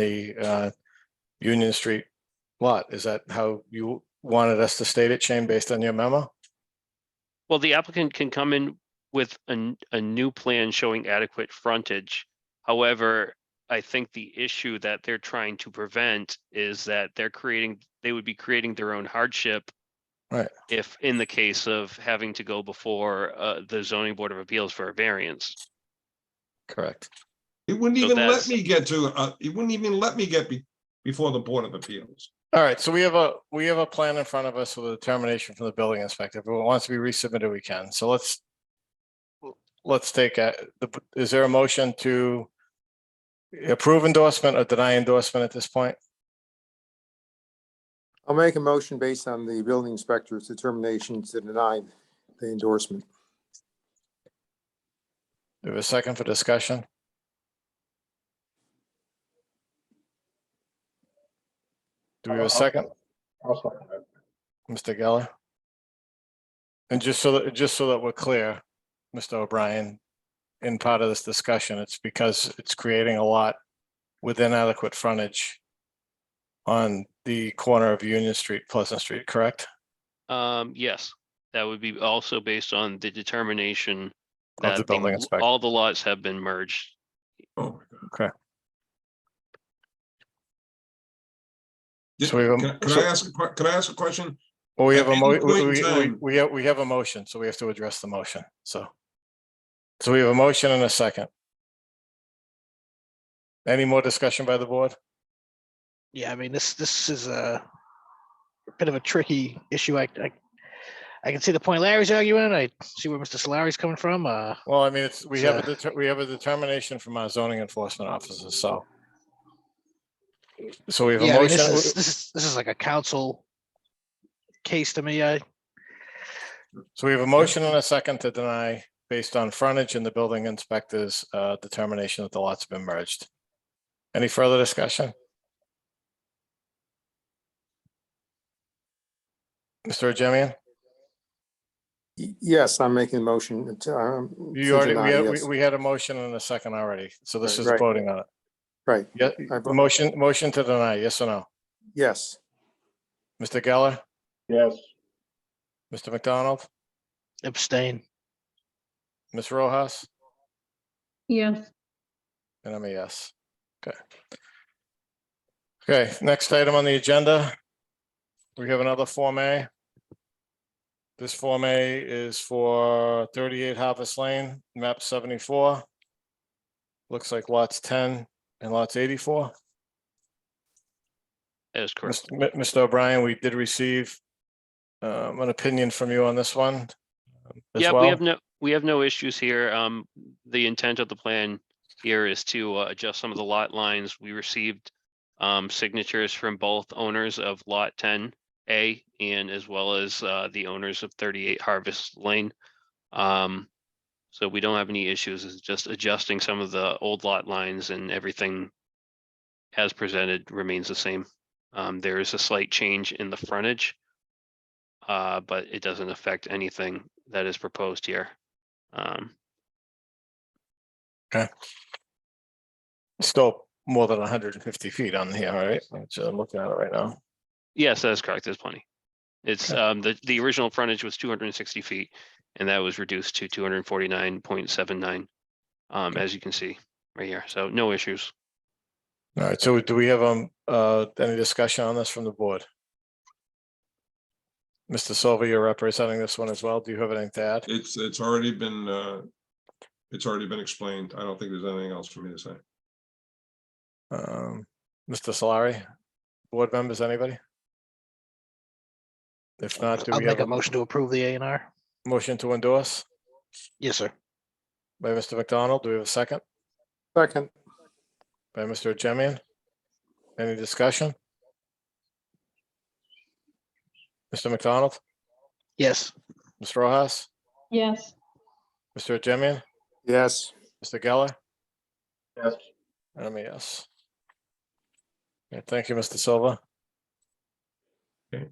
the uh, Union Street lot. Is that how you wanted us to state it, Shane, based on your memo? Well, the applicant can come in with a, n- a new plan showing adequate frontage. However, I think the issue that they're trying to prevent is that they're creating, they would be creating their own hardship. Right. If in the case of having to go before, uh, the zoning board of appeals for a variance. Correct. It wouldn't So even let that's- me get to, uh, it wouldn't even let me get be, before the Board of Appeals. All right, so we have a, we have a plan in front of us with a determination from the building inspector. If it wants to be resubmitted, we can. So let's let's take, a- the- is there a motion to approve endorsement or deny endorsement at this point? I'll make a motion based on the building inspector's determination to deny the endorsement. Do we have a second for discussion? Do we have a second? Mr. Geller? And just so that, just so that we're clear, Mr. O'Brien, in part of this discussion, it's because it's creating a lot with inadequate frontage on the corner of Union Street, Pleasant Street, correct? Um, yes, that would be also based on the determination Of the that the building l- inspector. all the lots have been merged. Oh, So we have Can a- can I um, so- ask, a que- can I ask a question? Well, we At have a any mo, we, point in we- we, time- we have, we have a motion, so we have to address the motion, so. So we have a motion and a second. Any more discussion by the board? Yeah, I mean, this, this is a bit of a tricky issue. I, I, I can see the point Larry's arguing. I see where Mr. Solari's coming from. Uh, Well, I mean, it's, we have a, Sure. deter- we have a determination from our zoning enforcement officers, so. So we have yeah, a I mean, this motion, is, this is, this is like a council case to me. I, so we have a motion and a second to deny based on frontage and the building inspector's uh, determination that the lots have been merged. Any further discussion? Mr. Jemian? Y- Yes, I'm making a motion to. um, You to already, deny, we had, we- yes. we had a motion and a second already, so this Right, is right. voting on it. Right, Yeah, I vote- motion, motion to deny, yes or no? yes, Mr. Geller? Yes. Mr. McDonald, abstain. Ms. Rojas, Yes, and I'm a yes. Okay. Okay, next item on the agenda. We have another Form A. This Form A is for thirty-eight Harvest Lane, map seventy-four. Looks like lots ten and lots eighty-four. That is correct. Mist- Mi- Mr. O'Brien, we did receive um, an opinion from you on this one um, as Yeah, we well. have no, we have no issues here. Um, the intent of the plan here is to uh, adjust some of the lot lines. We received um, signatures from both owners of Lot ten A and as well as uh, the owners of thirty-eight Harvest Lane. Um, so we don't have any issues. It's just adjusting some of the old lot lines and everything as presented remains the same. Um, there is a slight change in the frontage uh, but it doesn't affect anything that is proposed here. Um, Still more than hundred and fifty feet on here, all right? Which I'm looking at it right now. yes, that is correct. There's plenty. It's, um, the, the original frontage was two hundred and sixty feet and that was reduced to two hundred and forty-nine point seven nine. Um, as you can see right here. So no issues. All right, so do we have um uh any discussion on this from the board? Mr. Silva, you're representing this one as well. Do you have anything to add? It's, it's already been, uh, it's already been explained. I don't think there's anything else for me to say. Um, Mr. Solari? Board members, anybody? If not, do I'll we have make a a motion to approve the A and R. motion to endorse Yes, sir. by Mr. McDonald? Do we have a second? second, by Mr. Jemian. Any discussion? Mr. McDonald, Yes, Ms. Rojas, yes, Mr. Jemian, yes, Mr. Geller? Yes. And I'm a yes. Okay, Thank you, Mr. Silva. Okay.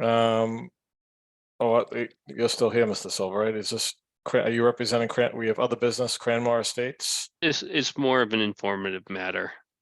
Um, oh, uh, you're still here, Mr. Silva, right? Is this Cra- are you representing, Cran- we have other business, Cranmore Estates? It's, it's more of an informative matter.